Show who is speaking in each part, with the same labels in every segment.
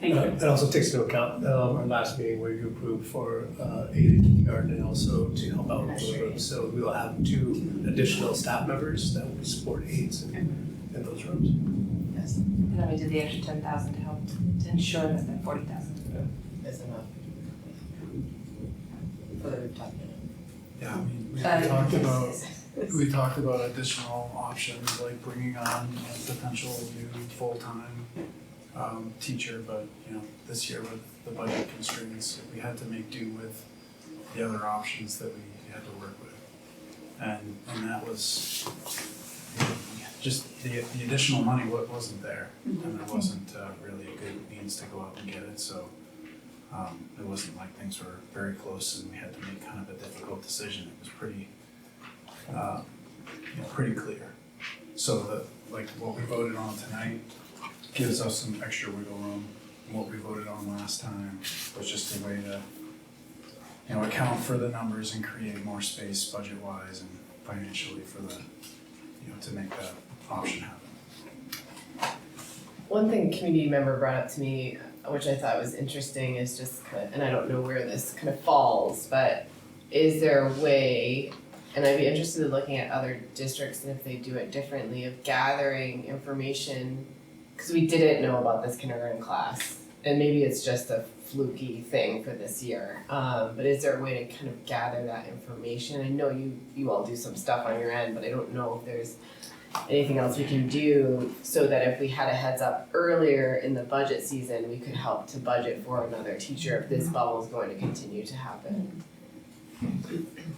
Speaker 1: Thank
Speaker 2: Uh,
Speaker 1: you.
Speaker 2: It also takes into account um, our last meeting where you approved for uh, aid in kindergarten and also to help out with the rooms. So we will have two additional staff members that will support aides in, in those rooms.
Speaker 3: Yes,
Speaker 4: And then we did the extra ten thousand to help to ensure that that forty thousand.
Speaker 3: that's enough. For the rooftop.
Speaker 5: Yeah, I mean, we talked about,
Speaker 4: Uh,
Speaker 5: we talked about additional options, like bringing on a potential new full-time um, teacher, but, you know, this year with the budget constraints, we had to make do with the other options that we had to work with. And, and that was, just the, the additional money wa- wasn't there, and there wasn't uh, really a good means to go out and get it, so um, it wasn't like things were very close and we had to make kind of a difficult decision. It was pretty, uh, you know, pretty clear. So that, like, what we voted on tonight gives us some extra wiggle room. And What we voted on last time was just a way to, you know, account for the numbers and create more space budget-wise and financially for the, you know, to make that option happen.
Speaker 3: One thing a community member brought up to me, which I thought was interesting, is just kind of, and I don't know where this kind of falls, but is there a way, and I'd be interested in looking at other districts and if they do it differently, of gathering information, because we didn't know about this kindergarten class, and maybe it's just a fluky thing for this year, um, but is there a way to kind of gather that information? I know you, you all do some stuff on your end, but I don't know if there's anything else we can do so that if we had a heads up earlier in the budget season, we could help to budget for another teacher if
Speaker 2: Mm-hmm.
Speaker 3: this bubble is going to continue to happen.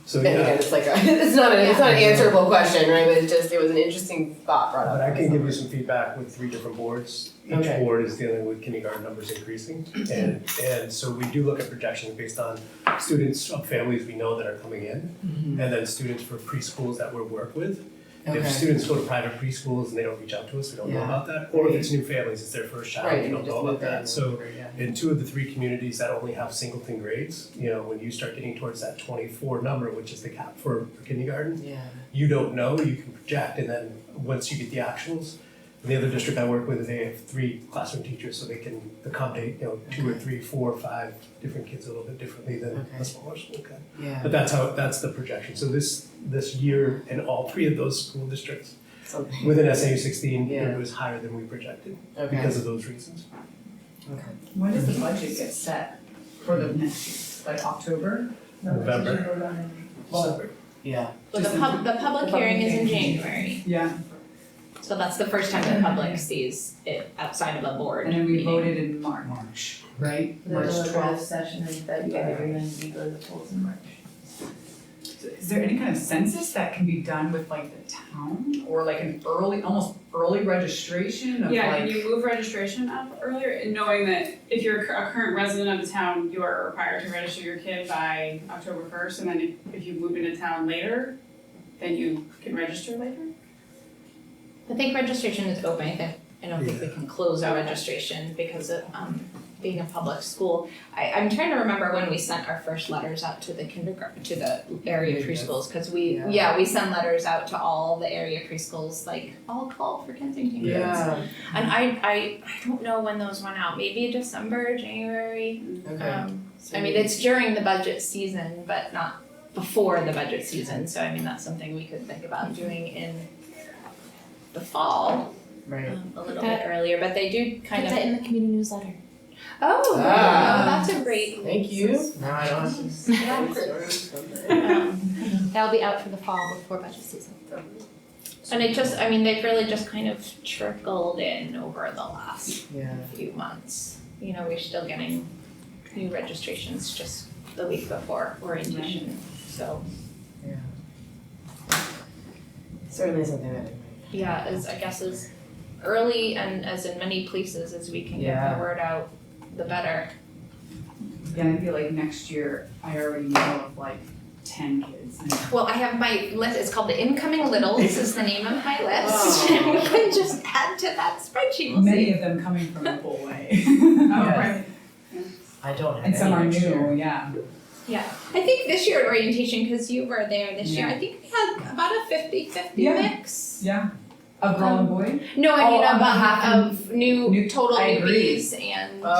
Speaker 2: So
Speaker 3: And again,
Speaker 2: Oh, yeah,
Speaker 3: it's like, a, it's not, a- it's not an answerable question, right, but it just, it was an interesting thought brought up.
Speaker 2: but I can give you some feedback with three different boards. Each
Speaker 3: Okay.
Speaker 2: board is dealing with kindergarten numbers increasing. And, and so we do look at projections based on students of families we know that are coming in. And then students for preschools that we work with. If
Speaker 3: Mm-hmm. Okay,
Speaker 2: students go to private preschools and they don't reach out to us, we don't know
Speaker 3: Yeah.
Speaker 2: about that. Or if it's new families, it's their first
Speaker 3: right,
Speaker 2: child, we
Speaker 3: and you
Speaker 2: don't
Speaker 3: just
Speaker 2: know
Speaker 3: move
Speaker 2: about
Speaker 3: that
Speaker 2: that. So
Speaker 3: over, yeah.
Speaker 2: in two of the three communities that only have singleton grades, you know, when you start getting towards that twenty-four number, which is the cap for for kindergarten,
Speaker 3: Yeah,
Speaker 2: you don't know, you can project, and then once you get the actuals, and the other district I work with, they have three classroom teachers, so they can accommodate, you know, two or
Speaker 3: Okay.
Speaker 2: three, four or five different kids a little bit differently than
Speaker 3: Okay.
Speaker 2: a smaller school can.
Speaker 3: yeah,
Speaker 2: But that's how, that's the projection. So this, this year, in all three of those school districts,
Speaker 3: something,
Speaker 2: within SAU sixteen,
Speaker 3: Yeah.
Speaker 2: it was higher than we projected
Speaker 3: okay,
Speaker 2: because of those reasons.
Speaker 3: okay.
Speaker 6: When does the budget get set for the next year? Like October?
Speaker 2: November.
Speaker 6: Well,
Speaker 3: Yeah,
Speaker 7: Well, the pub, the public hearing is in
Speaker 6: hearing.
Speaker 7: January,
Speaker 6: yeah,
Speaker 7: so that's the first time the public sees it outside of a board
Speaker 6: and then we
Speaker 7: meeting.
Speaker 6: voted in March, right? March
Speaker 4: The draft
Speaker 6: twelfth.
Speaker 4: session in February and then we go to the polls in March.
Speaker 6: Is there any kind of census that can be done with like the town or like an early, almost early registration of like?
Speaker 1: Yeah, can you move registration up earlier, And knowing that if you're a cur- a current resident of the town, you are required to register your kid by October first, and then if, if you move into town later, then you can register later?
Speaker 7: I think registration is open, I think, I don't think we can close our registration because of, um, being a public school. I, I'm trying to remember when we sent our first letters out to the kindergarten, to the area
Speaker 3: Maybe
Speaker 7: preschools, cause we,
Speaker 3: Yeah.
Speaker 7: yeah, we send letters out to all the area preschools, like, all call for Kensington kids.
Speaker 3: yeah,
Speaker 7: And I, I, I don't know when those went out, maybe December, January,
Speaker 3: okay.
Speaker 7: um, I mean, it's during the budget season, but not before the budget season, so I mean, that's something we could think about doing in the fall,
Speaker 3: Right,
Speaker 7: um, a little bit earlier, but they do kind of,
Speaker 4: in the community newsletter.
Speaker 7: oh,
Speaker 3: Ah.
Speaker 7: that's a great.
Speaker 3: thank you, now I don't.
Speaker 7: Yeah. Um, That'll be out for the fall before budget season. And it just, I mean, they've really just kind of trickled in over the last
Speaker 3: Yeah,
Speaker 7: few months. You know, we're still getting new registrations just the week before orientation, so.
Speaker 3: yeah. Certainly something that I might.
Speaker 7: Yeah, as I guess as early and as in many places as we can get
Speaker 3: Yeah.
Speaker 7: the word out, the better.
Speaker 6: Yeah, I feel like next year, I already know of like ten kids.
Speaker 7: Well, I have my list, it's called the incoming littles is the name of my list.
Speaker 6: Oh.
Speaker 7: We can just add to that spreadsheet, we'll
Speaker 6: Many
Speaker 7: see.
Speaker 6: of them coming from the whole way.
Speaker 1: right.
Speaker 3: I don't have
Speaker 6: And some
Speaker 3: any
Speaker 6: are
Speaker 3: next year.
Speaker 6: new, yeah.
Speaker 7: Yeah, I think this year at orientation, cause you were there this year,
Speaker 6: Yeah.
Speaker 7: I think we had about a 50-50
Speaker 6: Yeah.
Speaker 7: mix.
Speaker 6: Yeah. A girl and boy?
Speaker 7: No, I
Speaker 6: Oh,
Speaker 7: mean
Speaker 6: um,
Speaker 7: about half
Speaker 6: um,
Speaker 7: of new,
Speaker 6: new-
Speaker 7: total
Speaker 6: I agree.
Speaker 7: newbies and.